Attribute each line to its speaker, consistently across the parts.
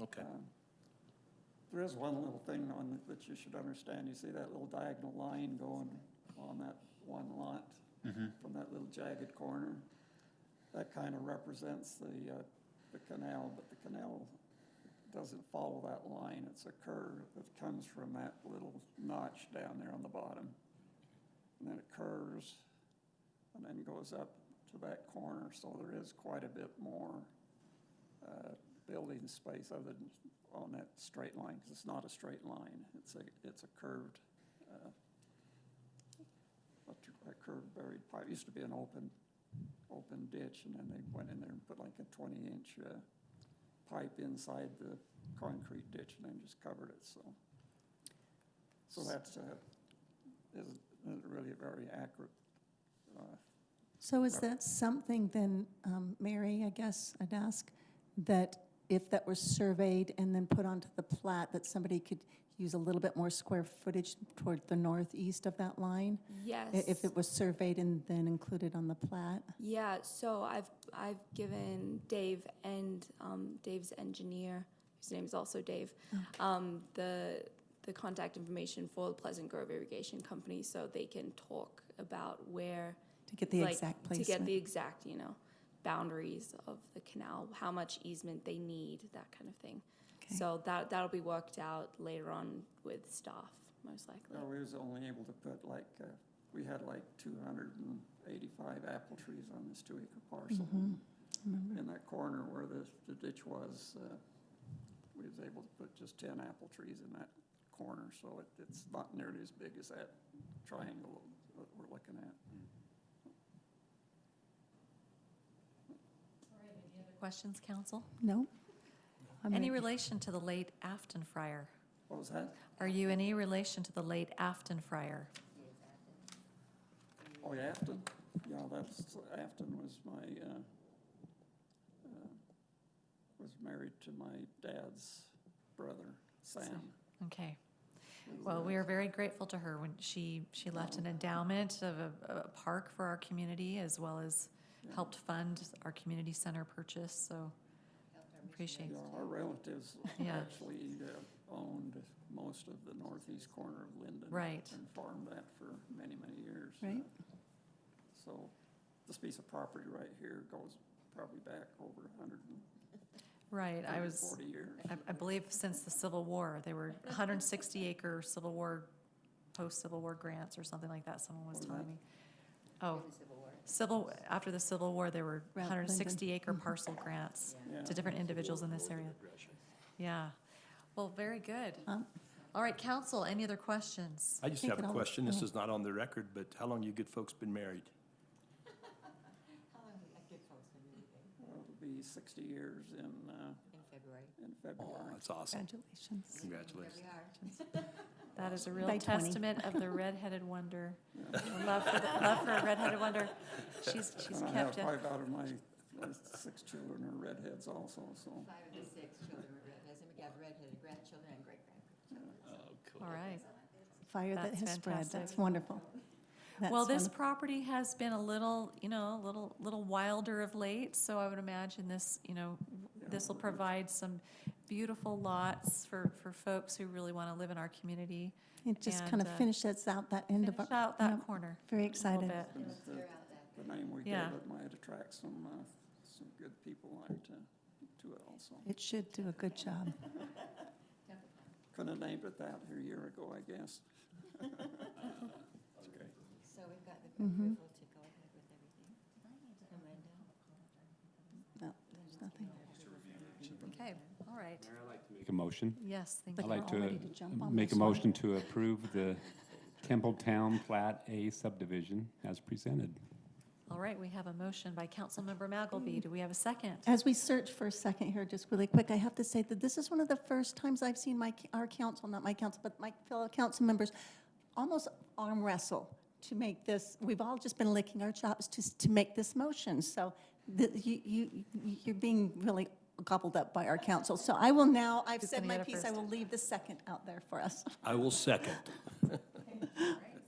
Speaker 1: Okay.
Speaker 2: Um, There is one little thing on, th- that you should understand, you see that little diagonal line going on that one lot from that little jagged corner? That kind of represents the, uh, the canal, but the canal doesn't follow that line, it's a curve that comes from that little notch down there on the bottom. And then it curves and then goes up to that corner, so there is quite a bit more uh, building space other than on that straight line, because it's not a straight line, it's a, it's a curved, uh, a tr- a curved buried pipe, It used to be an open, open ditch, and then they went in there and put like a twenty-inch uh, pipe inside the concrete ditch and then just covered it, so. So that's, uh, isn't isn't really a very accurate uh,
Speaker 3: So is that something then, um, Mary, I guess I'd ask, that if that were surveyed and then put onto the plat, that somebody could use a little bit more square footage toward the northeast of that line?
Speaker 4: Yes.
Speaker 3: i- If it was surveyed and then included on the plat?
Speaker 4: Yeah, so I've, I've given Dave and, um, Dave's engineer, whose name is also Dave,
Speaker 3: Mm.
Speaker 4: um, the, the contact information for the Pleasant Grove Irrigation Company, so they can talk about where.
Speaker 3: To get the
Speaker 4: like,
Speaker 3: exact
Speaker 4: To get the
Speaker 3: placement?
Speaker 4: exact, you know, boundaries of the canal, how much easement they need, that kind of thing.
Speaker 3: Okay.
Speaker 4: So that, that'll be worked out later on with staff, most likely.
Speaker 2: No, we was only able to put like, uh, we had like two hundred and eighty-five apple trees on this two acre parcel.
Speaker 5: Mm-hmm.
Speaker 3: Mm-hmm.
Speaker 2: In that corner where the, the ditch was, uh, we was able to put just ten apple trees in that corner, so it, it's not nearly as big as that triangle that we're looking at.
Speaker 5: Questions, council?
Speaker 3: No? I'm
Speaker 5: Any
Speaker 3: ready.
Speaker 5: relation to the late Afton Friar?
Speaker 2: What was that?
Speaker 5: Are you any relation to the late Afton Friar?
Speaker 2: Oh, yeah, Afton, yeah, that's, Afton was my, uh, uh, was married to my dad's brother, Sam.
Speaker 5: Okay. Well, we are very grateful to her when she, she left an endowment of a, a park for our community as well as helped fund our community center purchase, so appreciate.
Speaker 2: Yeah, our relatives
Speaker 5: Yeah.
Speaker 2: actually uh, owned most of the northeast corner of Linden.
Speaker 5: Right.
Speaker 2: And farmed that for many, many years. Uh,
Speaker 3: Right.
Speaker 2: So this piece of property right here goes probably back over a hundred and
Speaker 5: Right, I
Speaker 2: thirty,
Speaker 5: was,
Speaker 2: forty years.
Speaker 5: I, I believe since the Civil War, they were hundred and sixty acre Civil War, post-Civil War grants or something like that, someone was
Speaker 2: What was
Speaker 5: telling
Speaker 2: that?
Speaker 5: me. Oh, Civil, after the Civil War, there were
Speaker 3: Right,
Speaker 5: hundred and sixty
Speaker 3: Lyndon.
Speaker 5: acre parcel grants
Speaker 2: Yeah.
Speaker 5: to different individuals in this area. Yeah, well, very good.
Speaker 3: Um,
Speaker 5: All right, council, any other questions?
Speaker 1: I just
Speaker 3: Take
Speaker 1: have
Speaker 3: it
Speaker 1: a
Speaker 3: all.
Speaker 1: question. This is not on the record, but how long you good folks been married?
Speaker 2: Well, It'll be sixty years in, uh,
Speaker 6: In February.
Speaker 2: in
Speaker 1: Oh,
Speaker 2: February.
Speaker 1: that's awesome.
Speaker 3: Congratulations.
Speaker 1: Congratulations.
Speaker 6: There we are.
Speaker 5: That is a
Speaker 3: By
Speaker 5: real
Speaker 3: 20.
Speaker 5: testament of the redheaded wonder,
Speaker 2: Yeah.
Speaker 5: Our love for, the- love for a redheaded wonder. She's, she's
Speaker 2: And I have
Speaker 5: kept it.
Speaker 2: five out of my, my six children are redheads also, so.
Speaker 6: Five of the six children were redheads, and we have redheaded grandchildren and great-grandchildren.
Speaker 5: All right.
Speaker 3: Fire that
Speaker 5: That's
Speaker 3: has spread,
Speaker 5: fantastic.
Speaker 3: that's wonderful.
Speaker 5: Well,
Speaker 3: That's
Speaker 5: this
Speaker 3: wonderful.
Speaker 5: property has been a little, you know, a little, little wilder of late, so I would imagine this, you know,
Speaker 2: yeah,
Speaker 5: this will
Speaker 2: we're-
Speaker 5: provide some beautiful lots for, for folks who really want to live in our community.
Speaker 3: It just
Speaker 5: and,
Speaker 3: kind of
Speaker 5: uh,
Speaker 3: finishes out that end of,
Speaker 5: Finish
Speaker 3: our
Speaker 5: out that
Speaker 3: yeah,
Speaker 5: corner
Speaker 3: very
Speaker 5: a little
Speaker 3: excited.
Speaker 5: bit.
Speaker 2: and
Speaker 6: Let's
Speaker 2: the-
Speaker 6: clear out that.
Speaker 2: the name we gave
Speaker 5: Yeah.
Speaker 2: it might attract some, uh, some good people out to, to it also.
Speaker 3: It should do a good job.
Speaker 2: Couldn't have named it that a year ago, I guess.
Speaker 6: So we've got the approval to go ahead with everything. And Linda?
Speaker 3: No, there's nothing.
Speaker 5: Okay, all right.
Speaker 7: Make a motion.
Speaker 5: Yes, thank
Speaker 3: But
Speaker 5: you.
Speaker 7: I'd
Speaker 3: you're
Speaker 7: like
Speaker 3: all
Speaker 7: to
Speaker 3: ready to jump on
Speaker 7: Make a
Speaker 3: this one.
Speaker 7: motion to approve the Templetown Plat A subdivision as presented.
Speaker 5: All right, we have a motion by Councilmember Magalby.
Speaker 3: Mm.
Speaker 5: Do we have a second?
Speaker 3: As we search for a second here, just really quick, I have to say that this is one of the first times I've seen my, our council, not my council, but my fellow council members, almost arm wrestle to make this, we've all just been licking our chops to, to make this motion. So the, you, you, you're being really gobbled up by our council. So I will now, I've
Speaker 5: Who's
Speaker 3: said
Speaker 5: gonna
Speaker 3: my
Speaker 5: get it
Speaker 3: piece, I
Speaker 5: first?
Speaker 3: will leave the second out there for us.
Speaker 1: I will second.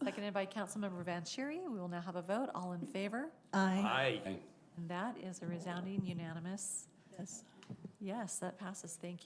Speaker 5: Seconded by Councilmember Vanchery. We will now have a vote. All in favor?
Speaker 3: Aye.
Speaker 1: Aye.
Speaker 5: And that is a resounding unanimous
Speaker 3: Yes.
Speaker 5: yes. That passes. Thank you.